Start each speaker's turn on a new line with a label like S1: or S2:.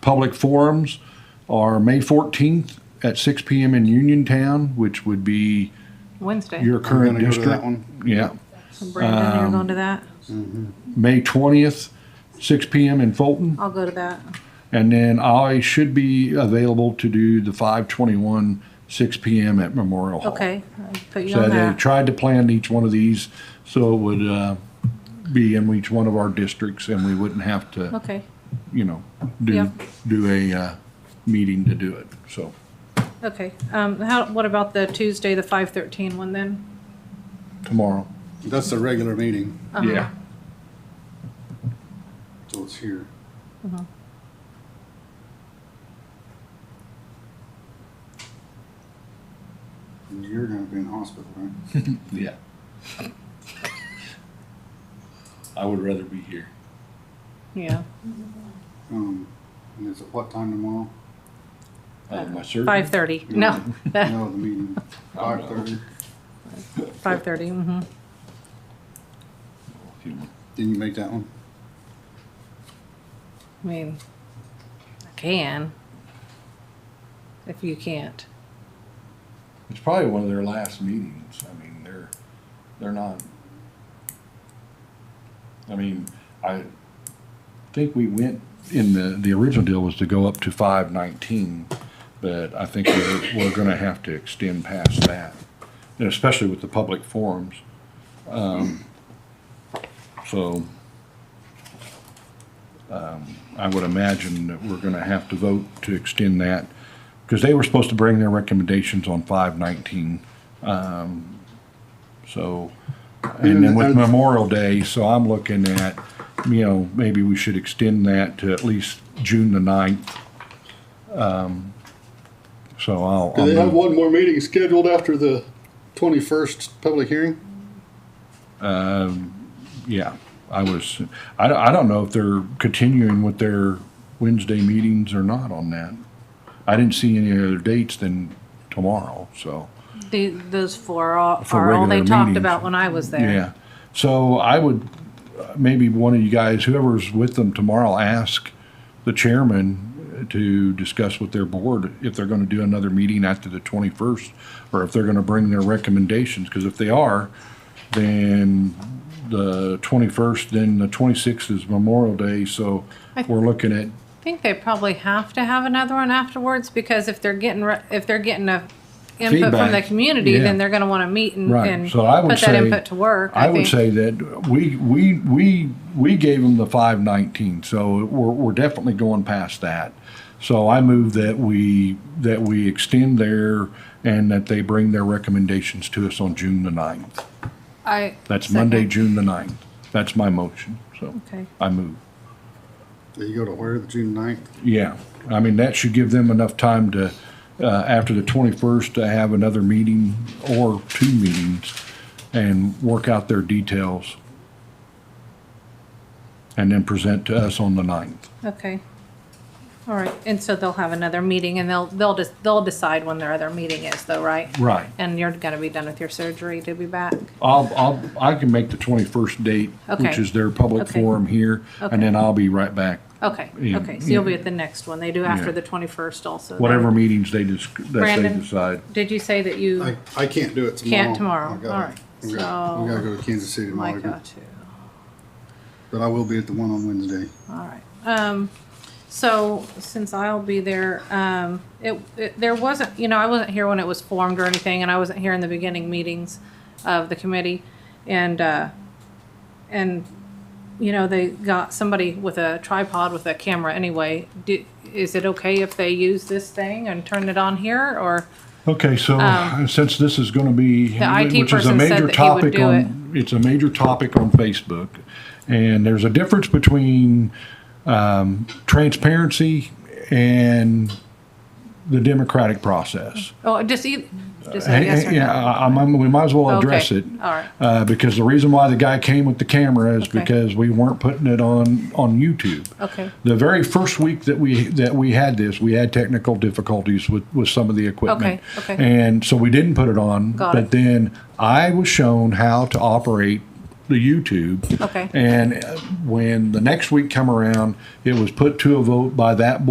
S1: Public forums are May fourteenth at six P M in Uniontown, which would be
S2: Wednesday.
S1: your
S3: We're
S1: current
S3: gonna go to that
S1: district.
S3: one.
S1: Yeah.
S2: Brandon, you're going to that?
S1: May twentieth, six P M in Fulton.
S2: I'll go to that.
S1: And then I should be available to do the five twenty-one, six P M at Memorial Hall.
S2: Okay, I'll Uh, put you
S1: So
S2: on
S1: they
S2: that.
S1: tried to plan each one of these so it would uh, be in each one of our districts and we wouldn't have to,
S2: Okay,
S1: you know, do,
S2: Yeah.
S1: do a uh, meeting to do it, so.
S2: okay. Um, how, what about the Tuesday, the five thirteen one then?
S1: Tomorrow,
S3: That's the regular meeting,
S2: Uh-huh.
S1: yeah.
S3: so it's here. Uh-huh. And You're gonna be in hospital, right?
S1: Yeah. I would rather be here.
S2: Yeah,
S3: Um, and it's at what time tomorrow?
S1: I have my surgery.
S2: five thirty. No,
S3: No, the meeting, five thirty.
S2: five thirty, mm-hmm.
S1: If you want.
S3: Didn't you make that one?
S2: I mean, I can. If you can't.
S1: It's probably one of their last meetings. I mean, they're, they're not. I mean, I think we went in the, the original deal was to go up to five nineteen, but I think we're, we're gonna have to extend past that, and especially with the public forums. Um, So, um, I would imagine that we're gonna have to vote to extend that because they were supposed to bring their recommendations on five nineteen. Um, So, and then with Memorial Day, so I'm looking at, you know, maybe we should extend that to at least June the ninth. Um, So I'll,
S3: Do they
S1: I'll
S3: have
S1: move-
S3: one more meeting scheduled after the twenty-first public hearing?
S1: yeah, I was, I, don't- I don't know if they're continuing with their Wednesday meetings or not on that. I didn't see any other dates than tomorrow, so.
S2: The, those four are, all-
S1: For
S2: are all they
S1: regular
S2: talked
S1: meetings.
S2: about when I was there.
S1: Yeah. So I would, uh, maybe one of you guys, whoever's with them tomorrow, ask the chairman to discuss with their board if they're gonna do another meeting after the twenty-first, or if they're gonna bring their recommendations, because if they are, then the twenty-first, then the twenty-sixth is Memorial Day, so
S2: I-
S1: we're looking at,
S2: I think they probably have to have another one afterwards because if they're getting, re- if they're getting a input from the
S1: Feedback,
S2: community,
S1: yeah.
S2: then they're gonna wanna meet and,
S1: Right,
S2: and
S1: so I would
S2: put that
S1: say-
S2: input to work.
S1: I would
S2: think.
S1: say that we, we, we, we gave them the five nineteen, so we're, we're definitely going past that. So I move that we, that we extend there and that they bring their recommendations to us on June the ninth.
S2: I.
S1: That's Monday,
S2: second.
S1: June the ninth. That's my motion, so
S2: Okay,
S1: I move.
S3: Do you go to where, the June ninth?
S1: Yeah, I mean, that should give them enough time to, uh, after the twenty-first, to have another meeting or two meetings and work out their details. And then present to us on the ninth.
S2: okay. All right, and so they'll have another meeting and they'll, they'll just, they'll decide when their other meeting is though, right?
S1: Right.
S2: And you're gonna be done with your surgery to be back?
S1: I'll, I'll, I can make the twenty-first date, which
S2: Okay.
S1: is their public
S2: Okay.
S1: forum here, and then I'll be right back.
S2: Okay,
S1: Yeah,
S2: okay, so you'll be
S1: yeah.
S2: at the next one. They do
S1: Yeah.
S2: after the twenty-first also. then.
S1: Whatever meetings they dis- that they
S2: Brandon?
S1: decide.
S2: Did you say that you,
S3: I, I can't do it tomorrow.
S2: Can't tomorrow.
S3: I gotta-
S2: All right.
S3: We gotta, we
S2: So-
S3: gotta go to Kansas City tomorrow,
S2: Micah
S3: again.
S2: too?
S3: but I will be at the one on Wednesday.
S2: All right. Um, so since I'll be there, um, it, it, there wasn't, you know, I wasn't here when it was formed or anything, and I wasn't here in the beginning meetings of the committee. And, uh, and, you know, they got somebody with a tripod with a camera anyway. Do, is it okay if they use this thing and turn it on here or?
S1: Okay, so uh,
S2: Um,
S1: since this is going to be,
S2: The IT
S1: which is a
S2: person said
S1: major
S2: that he would
S1: topic
S2: do
S1: on, it's a major topic on Facebook. And there's a difference between um, transparency and the democratic process.
S2: Oh, just e just a yes or no?
S1: Uh, Yeah, I- I'm- I'm- we might as well
S2: Okay,
S1: address it.
S2: All right.
S1: Uh, because the reason why the guy came with the camera is
S2: Okay. Oh,
S1: because we weren't putting it on, on YouTube.
S2: Okay.
S1: The very first week that we, that we had this, we had technical difficulties with, with some of the equipment.
S2: Okay, okay.
S1: And so we didn't put it on.
S2: Got
S1: But
S2: it.
S1: then I was shown how to operate the YouTube.
S2: Okay.
S1: And uh, when the next week come around, it was put to a vote by that board.